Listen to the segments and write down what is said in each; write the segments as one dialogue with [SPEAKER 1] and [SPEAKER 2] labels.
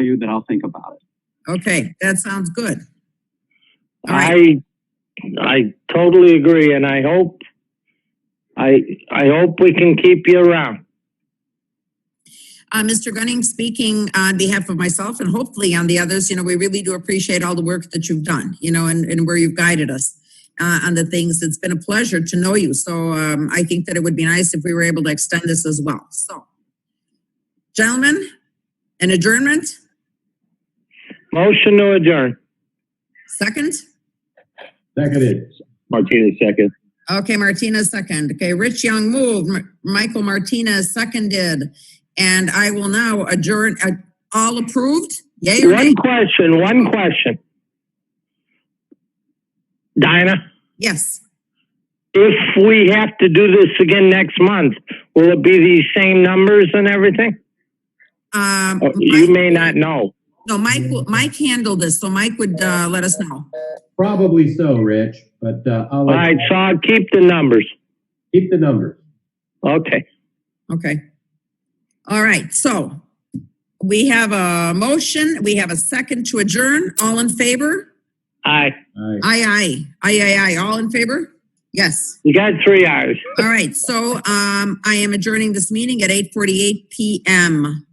[SPEAKER 1] you that I'll think about it.
[SPEAKER 2] Okay, that sounds good. All right,
[SPEAKER 3] I, I totally agree, and I hope, I, I hope we can keep you around.
[SPEAKER 2] uh, Mr. Gunning, speaking on behalf of myself and hopefully on the others, you know, we really do appreciate all the work that you've done, you know, and, and where you've guided us uh, on the things. It's been a pleasure to know you. So um, I think that it would be nice if we were able to extend this as well. So, gentlemen, an adjournment,
[SPEAKER 3] Motion to adjourn.
[SPEAKER 2] second?
[SPEAKER 4] Seconded.
[SPEAKER 1] Martina, second.
[SPEAKER 2] Okay, Martinez second. Okay, Rich Young moved. M- Michael Martinez seconded. And I will now adjourn, uh, all approved? Yay or nay?
[SPEAKER 3] One question, one question. Dinah,
[SPEAKER 2] Yes.
[SPEAKER 3] if we have to do this again next month, will it be these same numbers and everything?
[SPEAKER 2] Um,
[SPEAKER 3] Uh, You
[SPEAKER 2] Mike-
[SPEAKER 3] may not know.
[SPEAKER 2] no, Mike, will- Mike handled this, so Mike would, uh, let us know.
[SPEAKER 4] Probably so, Rich, but uh, I'll
[SPEAKER 3] All right,
[SPEAKER 4] let-
[SPEAKER 3] so I'll keep the numbers.
[SPEAKER 4] keep the numbers.
[SPEAKER 3] Okay.
[SPEAKER 2] Okay. All right, so we have a motion, we have a second to adjourn. All in favor?
[SPEAKER 3] Aye.
[SPEAKER 4] All right.
[SPEAKER 2] Aye, aye, aye, aye, aye. All in favor? Yes.
[SPEAKER 3] You got three hours.
[SPEAKER 2] All right, so um, I am adjourning this meeting at eight forty-eight PM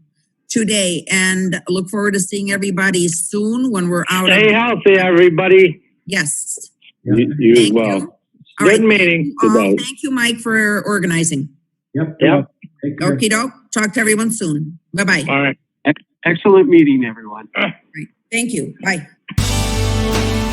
[SPEAKER 2] today and look forward to seeing everybody soon when we're out.
[SPEAKER 3] Stay
[SPEAKER 2] of-
[SPEAKER 3] healthy, everybody.
[SPEAKER 2] Yes.
[SPEAKER 4] Yep.
[SPEAKER 1] You
[SPEAKER 2] Thank you. All right,
[SPEAKER 3] Good meeting.
[SPEAKER 2] all.
[SPEAKER 1] Goodbye.
[SPEAKER 2] Thank you, Mike, for organizing.
[SPEAKER 4] Yep.
[SPEAKER 3] Yep.
[SPEAKER 4] Take care.
[SPEAKER 2] Okey doke, talk to everyone soon. Bye-bye.
[SPEAKER 3] All right.
[SPEAKER 1] Excellent meeting, everyone.
[SPEAKER 2] Thank you, bye.